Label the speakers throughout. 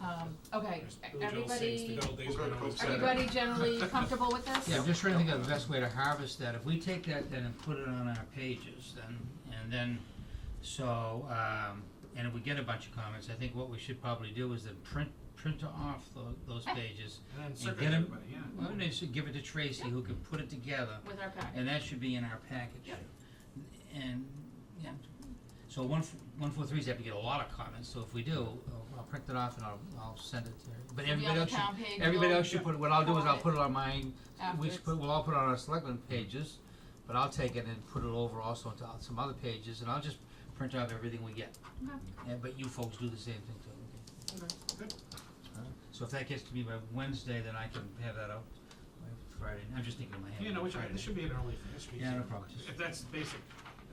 Speaker 1: Um, okay,
Speaker 2: There's Billy Joel sings
Speaker 1: everybody,
Speaker 2: the good old days
Speaker 3: We're
Speaker 2: when
Speaker 3: gonna
Speaker 2: I was
Speaker 3: coax that
Speaker 2: a kid.
Speaker 1: everybody generally comfortable with this?
Speaker 4: Yeah, I'm just trying to think of the best way to harvest that, if we take that then and put it on our pages, then, and then, so, um, and if we get a bunch of comments, I think what we should probably do is then print, print off tho- those pages.
Speaker 3: Eh. And then
Speaker 4: and
Speaker 3: circle
Speaker 4: get 'em-
Speaker 3: everybody, yeah.
Speaker 4: Well, they should give it to Tracy, who can put it together,
Speaker 1: With our packet,
Speaker 4: and that should be in our package.
Speaker 1: Yep.
Speaker 4: And, yeah, so one, f- one, four, three's have to get a lot of comments, so if we do, I'll, I'll print it off and I'll, I'll send it to, but
Speaker 1: It'll be
Speaker 4: everybody
Speaker 1: on the
Speaker 4: else should,
Speaker 1: town page,
Speaker 4: everybody
Speaker 1: we'll-
Speaker 4: else should put, what I'll do is I'll
Speaker 1: comment
Speaker 4: put it on mine, we
Speaker 1: afterwards.
Speaker 4: should put, we'll all put it on our selectmen pages, but I'll take it and put it over also onto some other pages, and I'll just print out everything we get.
Speaker 1: Okay.
Speaker 4: Yeah, but you folks do the same thing too,
Speaker 1: Okay.
Speaker 4: okay? So if that gets to me by Wednesday, then I can have that out by Friday, I'm just thinking in my head.
Speaker 3: You know, which,
Speaker 4: Friday.
Speaker 3: this should be an early thing, this should be.
Speaker 4: Yeah,
Speaker 3: easy.
Speaker 4: no problem, just-
Speaker 3: If that's basic,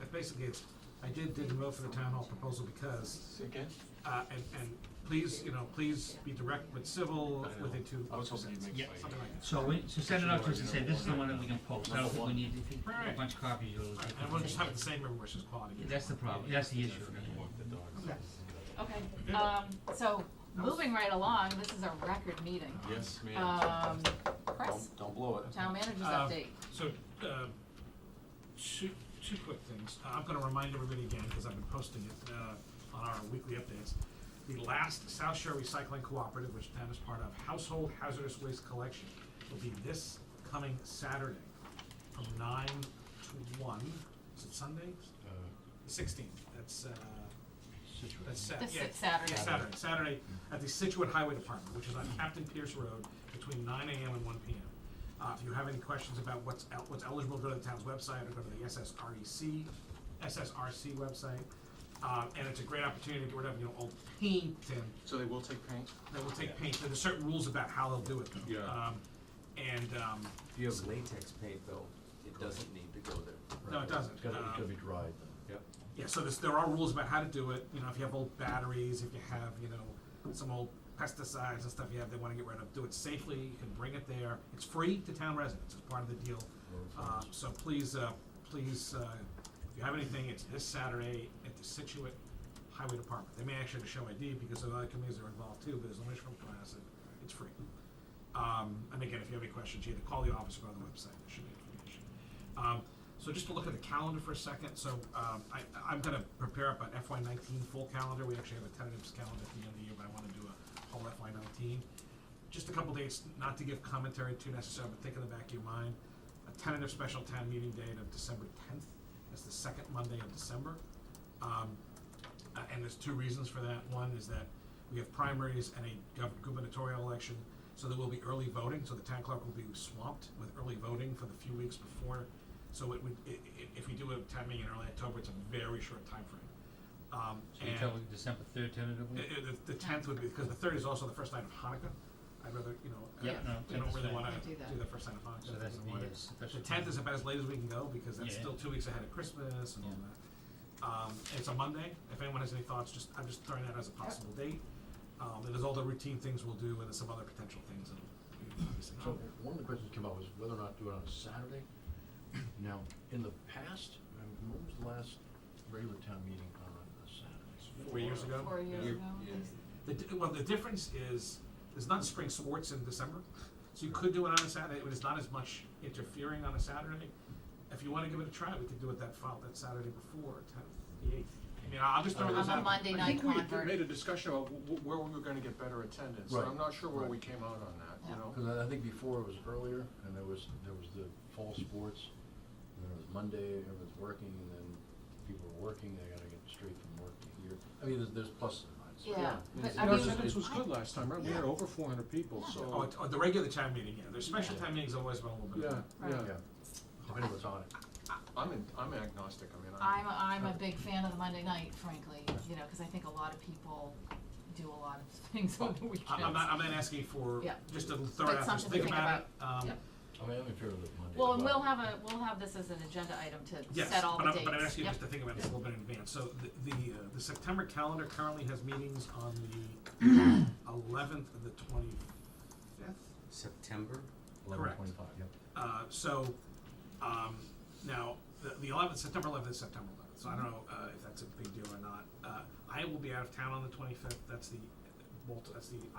Speaker 3: if basically it's, I did dig well for the town hall proposal because,
Speaker 5: Again?
Speaker 3: uh, and, and please, you know, please be direct with civil, with it to.
Speaker 5: I was hoping you'd make
Speaker 3: Yeah,
Speaker 5: it by-
Speaker 3: something like that.
Speaker 4: So we, so send it out to us and say, this is the one that we can post, I don't think we need, if you,
Speaker 3: Right,
Speaker 4: a
Speaker 3: right.
Speaker 4: bunch of copies, you'll.
Speaker 3: Right, And we'll just have it the same everywhere, it's just quality.
Speaker 4: Yeah, That's the problem, that's the issue, right?
Speaker 5: Walk the dogs.
Speaker 3: Okay.
Speaker 1: Okay, um, so, moving right along, this is a record meeting.
Speaker 5: Yes, ma'am.
Speaker 1: Um, Chris,
Speaker 5: Don't, don't blow it.
Speaker 1: town manager's
Speaker 3: Uh,
Speaker 1: update.
Speaker 3: So, uh, two, two quick things. Uh, I'm gonna remind everybody again, because I've been posting it, uh, on our weekly updates. The last South Shore Recycling Cooperative, which town is part of, household hazardous waste collection, will be this coming Saturday from nine to one. Is it Sunday?
Speaker 6: Uh,
Speaker 3: The sixteenth. That's, uh, that's Sat-
Speaker 1: This
Speaker 3: yeah,
Speaker 1: is Saturday.
Speaker 3: yeah, Saturday, Saturday, at the Situate Highway Department, which is on Captain Pierce Road, between nine AM and one PM. Uh, if you have any questions about what's el- what's eligible, go to the town's website or go to the SSREC, SSRC website. Uh, and it's a great opportunity to get rid of, you know, old paint and
Speaker 5: So they will take paint?
Speaker 3: they will take paint, there's certain rules about how they'll do it though.
Speaker 5: Yeah.
Speaker 3: Um, and, um,
Speaker 7: If you have latex paint though, it doesn't need to go there.
Speaker 3: no, it doesn't.
Speaker 6: It's gotta, it's
Speaker 3: Um,
Speaker 6: gotta be dried though.
Speaker 7: Yep.
Speaker 3: Yeah, so there's, there are rules about how to do it, you know, if you have old batteries, if you have, you know, some old pesticides and stuff you have, they wanna get rid of, do it safely, you can bring it there, it's free to town residents, it's part of the deal. Uh, so please, uh, please, uh, if you have anything, it's this Saturday at the Situate Highway Department, they may actually have a show ID because the other committees are involved too, but there's no issue from class, it, it's free. Um, and again, if you have any questions, you either call the office or go on the website, there should be information. Um, so just to look at the calendar for a second, so, um, I, I'm gonna prepare up an FY nineteen full calendar, we actually have a tentative calendar at the end of the year, but I wanna do a whole FY nineteen. Just a couple dates, not to give commentary too necessary, but think in the back of your mind, a tentative special town meeting date of December tenth, that's the second Monday of December. Um, uh, and there's two reasons for that. One is that we have primaries and a gov- gubernatorial election, so there will be early voting, so the town clerk will be swamped with early voting for the few weeks before. So it would, i- i- if we do a town meeting in early October, it's a very short timeframe. Um,
Speaker 4: So you
Speaker 3: and-
Speaker 4: tell December third
Speaker 3: I-
Speaker 4: tentatively?
Speaker 3: I- the, the tenth would be, because the third is also the first night of Hanukkah. I'd rather, you know,
Speaker 4: Yeah, no,
Speaker 3: I- I don't
Speaker 4: that's
Speaker 3: really
Speaker 4: fine.
Speaker 3: wanna
Speaker 1: Can't do
Speaker 3: do
Speaker 1: that.
Speaker 3: the first night of Hanukkah.
Speaker 4: So that's
Speaker 3: in
Speaker 4: the,
Speaker 3: the morning.
Speaker 4: uh, special.
Speaker 3: The tenth is about as late as we can go, because that's
Speaker 4: Yeah.
Speaker 3: still two weeks ahead of Christmas and all
Speaker 4: Yeah.
Speaker 3: that. Um, it's a Monday, if anyone has any thoughts, just, I'm just throwing that as a possible date. Um, and there's all the routine things we'll do, and there's some other potential things that'll, obviously.
Speaker 5: Um,
Speaker 6: So, one of the questions that came up was whether or not do it on a Saturday. Now, in the past, I mean, when was the last regular town meeting on a Saturday?
Speaker 3: Four years ago.
Speaker 1: Four years
Speaker 5: You're-
Speaker 1: ago.
Speaker 5: yeah.
Speaker 3: The, di- well, the difference is, there's not spring sports in December, so you could do it on a Saturday, but it's not as much interfering on a Saturday. If you wanna give it a try, we could do it that fall, that Saturday before, tenth, the eighth. I mean, I'll just throw
Speaker 1: I'm
Speaker 3: those out.
Speaker 1: a Monday
Speaker 5: I
Speaker 1: night
Speaker 5: think we had
Speaker 1: convert.
Speaker 5: made a discussion about wh- wh- where we were gonna get better attendance, and
Speaker 6: Right.
Speaker 5: I'm not sure where
Speaker 6: Right.
Speaker 5: we came out on that, you
Speaker 1: Yeah.
Speaker 5: know?
Speaker 6: Cause I, I think before it was earlier, and there was, there was the fall sports, and then it was Monday, everyone's working, and then people are working, they gotta get straight from work to here. I mean, there's, there's pluses and minuses.
Speaker 1: Yeah, but
Speaker 6: Yeah.
Speaker 1: I
Speaker 5: Our
Speaker 1: mean,
Speaker 5: attendance was good last time, right? We had
Speaker 1: Yeah.
Speaker 5: over four hundred people, so.
Speaker 3: Oh, it's- oh, the regular time meeting, yeah, there's special time meetings always been a little bit. of-
Speaker 5: Yeah,
Speaker 1: Right.
Speaker 5: yeah.
Speaker 6: Yeah, depending what's on it.
Speaker 5: I'm in, I'm agnostic, I mean, I'm.
Speaker 1: I'm, I'm a big fan of the Monday night, frankly, you know, cause I think a lot of people do a lot of things on the weekends.
Speaker 3: I- I'm not, I'm not asking for,
Speaker 1: Yeah.
Speaker 3: just to throw
Speaker 1: But
Speaker 3: it out, there,
Speaker 1: something
Speaker 3: just
Speaker 1: to
Speaker 3: think
Speaker 1: think
Speaker 3: about it, um,
Speaker 1: Yeah.
Speaker 6: I mean, I'm in favor of the Monday.
Speaker 1: Well,
Speaker 6: as
Speaker 1: and we'll have a, we'll have this as an agenda item to
Speaker 3: Yes,
Speaker 1: set all
Speaker 3: but
Speaker 1: the
Speaker 3: I'm,
Speaker 1: dates.
Speaker 3: but I'm asking you
Speaker 1: Yep.
Speaker 3: just to think about this a little bit in advance. So the, the, uh, the September calendar currently has meetings on the eleventh and the twenty-fifth.
Speaker 7: September?
Speaker 3: Correct.
Speaker 6: 11:25, yep.
Speaker 3: Uh, so, um, now, the, the eleventh, September eleventh is September eleventh, so I don't know, uh, if that's a big deal or not. Uh, I will be out of town on the twenty-fifth, that's the, uh, multi- that's the